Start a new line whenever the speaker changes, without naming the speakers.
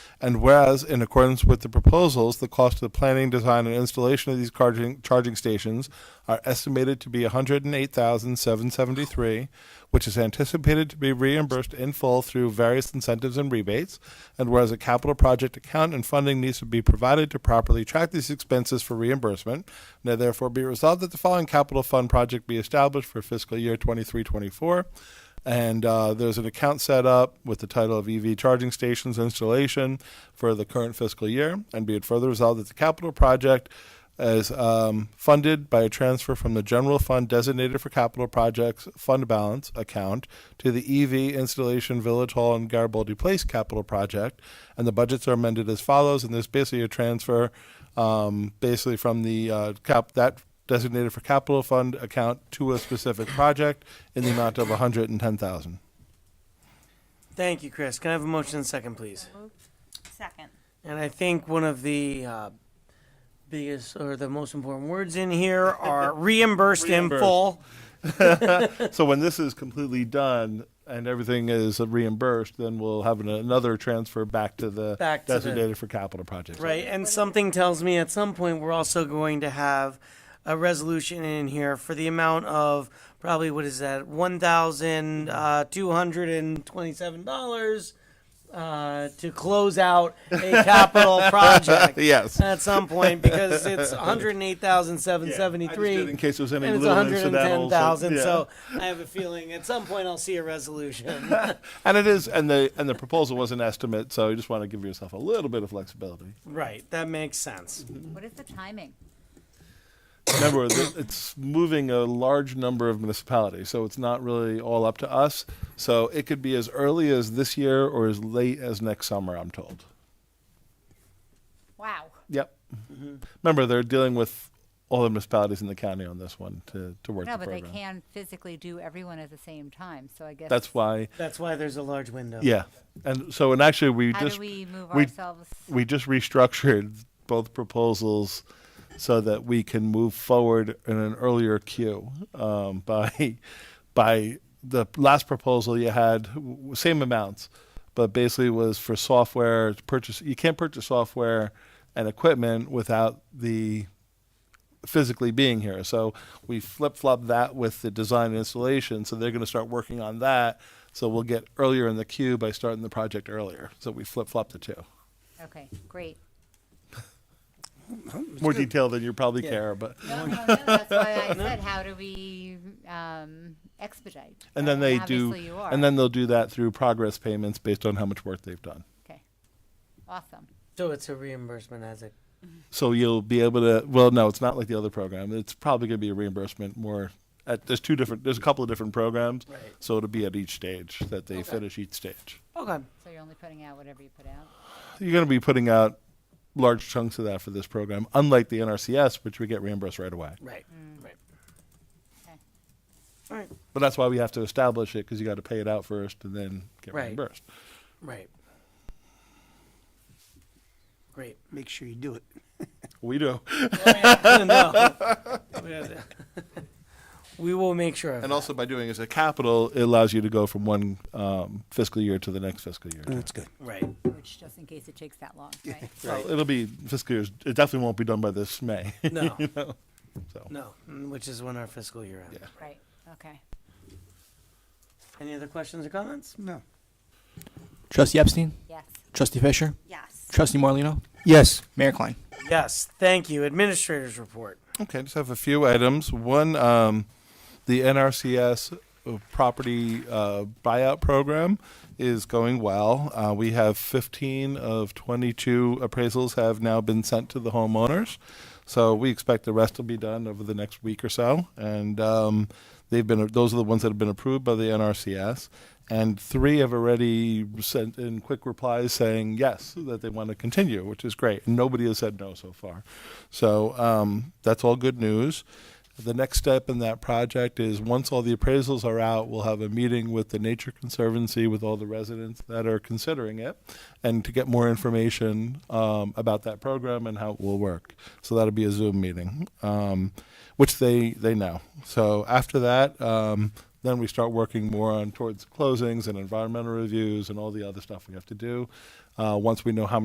And whereas, in accordance with the proposals, the cost of the planning, design, and installation of these charging, charging stations are estimated to be $108,773, which is anticipated to be reimbursed in full through various incentives and rebates. And whereas a capital project account and funding needs to be provided to properly track these expenses for reimbursement, now therefore be resolved that the following capital fund project be established for fiscal year 23 24. And uh, there's an account set up with the title of EV charging stations installation for the current fiscal year. And be it further resolved that the capital project is um, funded by a transfer from the general fund designated for capital projects fund balance account to the EV installation Village Hall and Garibaldi Place capital project. And the budgets are amended as follows. And there's basically a transfer um, basically from the uh, cap that designated for capital fund account to a specific project in the amount of 110,000.
Thank you, Chris. Can I have a motion and second, please?
Second.
And I think one of the uh, biggest or the most important words in here are reimbursed in
Reimbursed.
full.
So when this is completely done and everything is reimbursed, then we'll have an, another transfer back to the
Back to the-
designated for capital projects.
Right, and something tells me at some point we're also going to have a resolution in here for the amount of probably what is that one thousand uh, two hundred and twenty-seven dollars uh, to close out a capital project.
Yes.
At some point, because it's one hundred eight thousand seven
Yeah, I just
seventy-three.
did in case there was any
and it's
little incidental, so-
110,000.
yeah.
So I have a feeling at some point I'll see a resolution.
And it is, and the and the proposal was an estimate, so you just want to give yourself a little bit of flexibility.
right, that makes sense.
What is the timing?
Remember, th- it's moving a large number of municipalities, so it's not really all up to us. So it could be as early as this year or as late as next summer. I'm told.
Wow.
Yep.
Mm-hmm.
Remember, they're dealing with all the municipalities in the county on this one to, to work
No,
the
but they
program.
can physically do everyone at the same time, so I guess.
That's why,
That's why there's a large window.
yeah. And so, and actually, we
How
just
do we move
we-
ourselves?
we just restructured both proposals so that we can move forward in an earlier queue um, by by the last proposal you had w- w- same amounts but basically was for software to purchase you can't purchase software and equipment without the physically being here so we flip-flop that with the design and installation so they're going to start working on that so we'll get earlier in the queue by starting the project earlier so we flip-flop the two
Okay, great.
more detail than you probably
Yeah.
care but
No, no, no, that's why I said, how do we um, expedite?
and then they do
Obviously you are.
and then they'll do that through progress payments based on how much work they've done
Okay, awesome.
So it's a reimbursement as a
so you'll be able to well no it's not like the other program it's probably going to be a reimbursement more at there's two different there's a couple of different programs
Right.
so it'll be at each stage that they
Okay.
finish each stage
Okay.
So you're only putting out whatever you put out?
you're going to be putting out large chunks of that for this program unlike the nrcs which we get reimbursed right away
Right. Right.
Okay.
All right.
but that's why we have to establish it because you got to pay it out first and then get
Right.
reimbursed
Right. Great.
make sure you do it.
we do
No. we will make sure of
And
that.
also by doing as a capital, it allows you to go from one um, fiscal year to the next fiscal year. too.
That's good.
Right.
Which, just in case it takes that long, right?
Well, it'll be fiscal years. It definitely won't be done by this May.
No.
so.
No. Mm, Which is when our fiscal year ends.
Yeah.
Right, okay.
Any other questions or comments?
No.
Trustee Epstein,
Yes.
Trustee Fisher,
Yes.
Trustee Morlino,
Yes.
Mayor Klein.
Yes. Thank you. Administrators report.
Okay, I just have a few items. One, um, the NRCS property uh, buyout program is going well. Uh, we have 15 of 22 appraisals have now been sent to the homeowners. So we expect the rest will be done over the next week or so. And um, they've been those are the ones that have been approved by the NRCS. And three have already sent in quick replies saying yes, that they want to continue, which is great. Nobody has said no so far. So um, that's all good news. The next step in that project is once all the appraisals are out, we'll have a meeting with the Nature Conservancy with all the residents that are considering it and to get more information um, about that program and how it will work. So that'll be a Zoom meeting, um, which they, they know. So after that, um, then we start working more on towards closings and environmental reviews and all the other stuff we have to do uh, once we know how